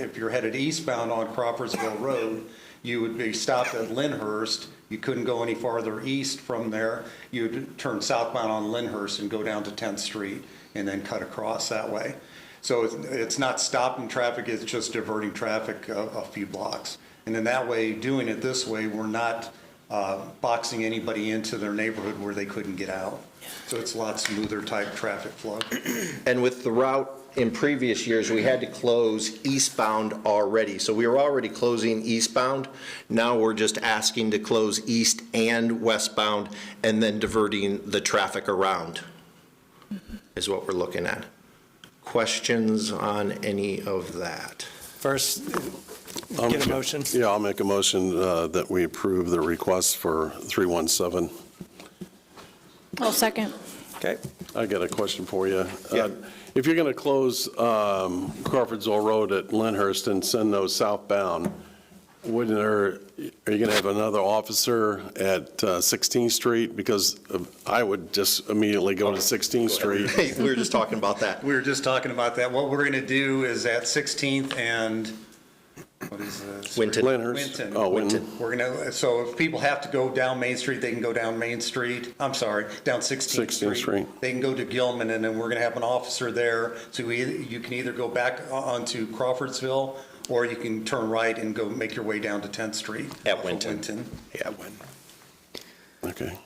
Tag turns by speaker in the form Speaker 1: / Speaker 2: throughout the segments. Speaker 1: if you're headed eastbound on Crawfordsville Road, you would be stopped at Lyndhurst. You couldn't go any farther east from there. You'd turn southbound on Lyndhurst and go down to 10th Street and then cut across that way. So it's- it's not stopping traffic, it's just diverting traffic a a few blocks. And in that way, doing it this way, we're not uh, boxing anybody into their neighborhood where they couldn't get out. So it's a lot smoother type traffic flow.
Speaker 2: And with the route in previous years, we had to close eastbound already. So we were already closing eastbound. Now we're just asking to close east and westbound and then diverting the traffic around is what we're looking at. Questions on any of that?
Speaker 3: First,
Speaker 4: Um,
Speaker 3: get a motion.
Speaker 4: Yeah, I'll make a motion uh, that we approve the request for 317.
Speaker 5: I'll second.
Speaker 3: Okay.
Speaker 4: I got a question for you.
Speaker 2: Yeah.
Speaker 4: Uh, If you're going to close um, Crawfordsville Road at Lyndhurst and send those southbound, wouldn't there, are you going to have another officer at uh, 16th Street? Because uh, I would just immediately go to 16th Street.
Speaker 2: Hey, we were just talking about that.
Speaker 1: We were just talking about that. What we're going to do is at 16th and, what is this?
Speaker 2: Winton.
Speaker 4: Lyndhurst.
Speaker 1: Winton.
Speaker 4: Oh, Winton.
Speaker 2: Winton.
Speaker 1: We're going to, so if people have to go down Main Street, they can go down Main Street, I'm sorry, down 16th
Speaker 4: 16th
Speaker 1: Street.
Speaker 4: Street.
Speaker 1: They can go to Gilman, and then we're going to have an officer there, so we- you can either go back o- onto Crawfordsville, or you can turn right and go make your way down to 10th Street.
Speaker 2: At
Speaker 1: off of
Speaker 2: Winton.
Speaker 1: Winton.
Speaker 2: Yeah, Winton.
Speaker 4: Okay.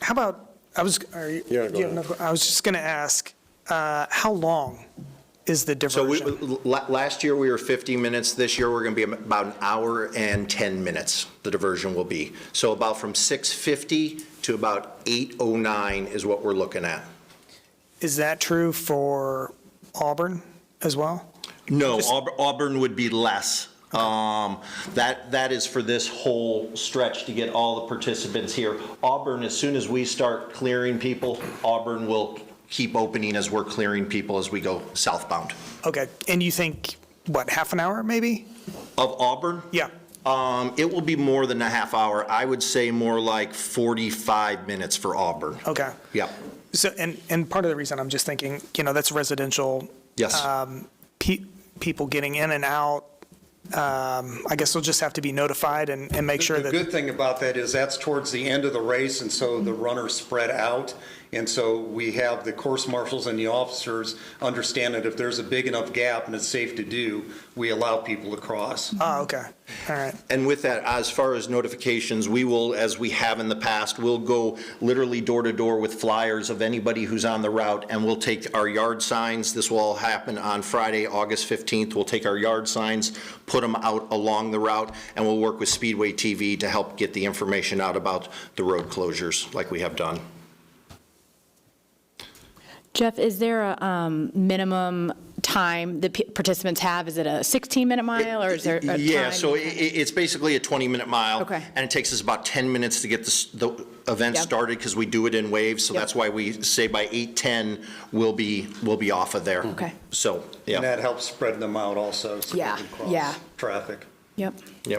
Speaker 3: How about, I was, are you,
Speaker 4: Yeah, go
Speaker 3: do you
Speaker 4: ahead.
Speaker 3: have another- I was just going to ask, uh, how long is the
Speaker 2: So we,
Speaker 3: diversion?
Speaker 2: la- last year, we were 50 minutes. This year, we're going to be about an hour and 10 minutes, the diversion will be. So about from 6:50 to about 8:09 is what we're looking at.
Speaker 3: Is that true for Auburn as well?
Speaker 2: No, Aub- Auburn would be less. Um, That, that is for this whole stretch to get all the participants here. Auburn, as soon as we start clearing people, Auburn will keep opening as we're clearing people as we go southbound.
Speaker 3: Okay, and you think, what, half an hour maybe?
Speaker 2: Of Auburn?
Speaker 3: Yeah,
Speaker 2: Um, it will be more than a half hour. I would say more like 45 minutes for Auburn.
Speaker 3: okay.
Speaker 2: Yep,
Speaker 3: So, and, and part of the reason I'm just thinking, you know, that's residential um,
Speaker 2: yes.
Speaker 3: pe- people getting in and out. Um, I guess they'll just have to be notified and, and make sure
Speaker 1: The
Speaker 3: that,
Speaker 1: good thing about that is that's towards the end of the race, and so the runners spread out. And so we have the course marshals and the officers understand that if there's a big enough gap and it's safe to do, we allow people to cross.
Speaker 3: oh, okay, all right.
Speaker 2: And with that, as far as notifications, we will, as we have in the past, we'll go literally door to door with flyers of anybody who's on the route, and we'll take our yard signs. This will all happen on Friday, August 15th. We'll take our yard signs, put them out along the route, and we'll work with Speedway TV to help get the information out about the road closures like we have done.
Speaker 5: Jeff, is there a um, minimum time that p- participants have? Is it a 16-minute mile, or is there a time?
Speaker 2: Yeah, so i- i- it's basically a 20-minute mile.
Speaker 5: Okay.
Speaker 2: And it takes us about 10 minutes to get this- the event
Speaker 5: Yep.
Speaker 2: started because we do it in waves. So
Speaker 5: Yep.
Speaker 2: that's why we say by 8:10, we'll be, we'll be off of there.
Speaker 5: Okay.
Speaker 2: So,
Speaker 1: And
Speaker 2: yeah.
Speaker 1: that helps spread them out also. so they
Speaker 5: Yeah,
Speaker 1: can cross
Speaker 5: yeah.
Speaker 1: Traffic.
Speaker 5: Yep.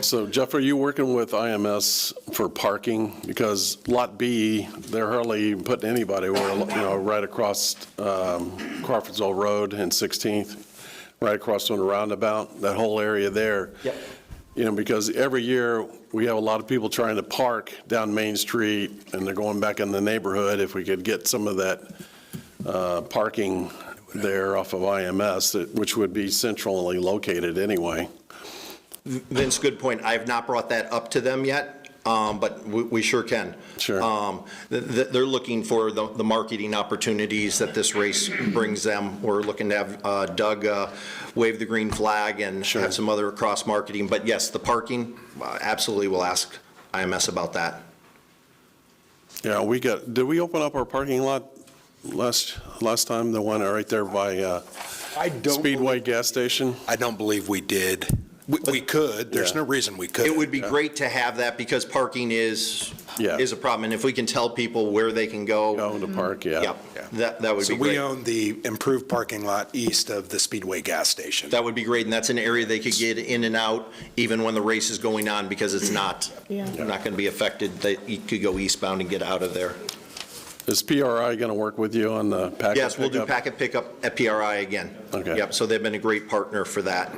Speaker 4: So Jeff, are you working with IMS for parking? Because Lot B, they're hardly putting anybody, where, you know, right across um, Crawfordsville Road and 16th, right across on the roundabout, that whole area there.
Speaker 2: Yep.
Speaker 4: You know, because every year, we have a lot of people trying to park down Main Street, and they're going back in the neighborhood. If we could get some of that uh, parking there off of IMS, that- which would be centrally located anyway.
Speaker 2: Vince, good point. I have not brought that up to them yet, um, but we- we sure can.
Speaker 4: Sure.
Speaker 2: Um, th- th- They're looking for the the marketing opportunities that this race brings them. We're looking to have uh, Doug uh, wave the green flag and
Speaker 4: Sure.
Speaker 2: have some other cross-marketing. But yes, the parking, uh, absolutely, we'll ask IMS about that.
Speaker 4: Yeah, we got, did we open up our parking lot last, last time, the one right there by uh,
Speaker 6: I don't, believe-
Speaker 4: Speedway gas station?
Speaker 6: I don't believe we did. We, we could, there's
Speaker 4: Yeah.
Speaker 6: no reason we couldn't.
Speaker 2: It would be great to have that because parking is,
Speaker 4: Yeah.
Speaker 2: is a problem. And if we can tell people where they can go,
Speaker 4: Go to park, yeah.
Speaker 2: yep, that that would
Speaker 6: So
Speaker 2: be
Speaker 6: we
Speaker 2: great.
Speaker 6: own the improved parking lot east of the Speedway gas station.
Speaker 2: That would be great, and that's an area they could get in and out even when the race is going on, because it's not,
Speaker 5: Yeah.
Speaker 2: not going to be affected, that you could go eastbound and get out of there.
Speaker 4: Is PRI going to work with you on the package?
Speaker 2: Yes, we'll do packet pickup at PRI again.
Speaker 4: Okay.
Speaker 2: Yep, so they've been a great partner for that.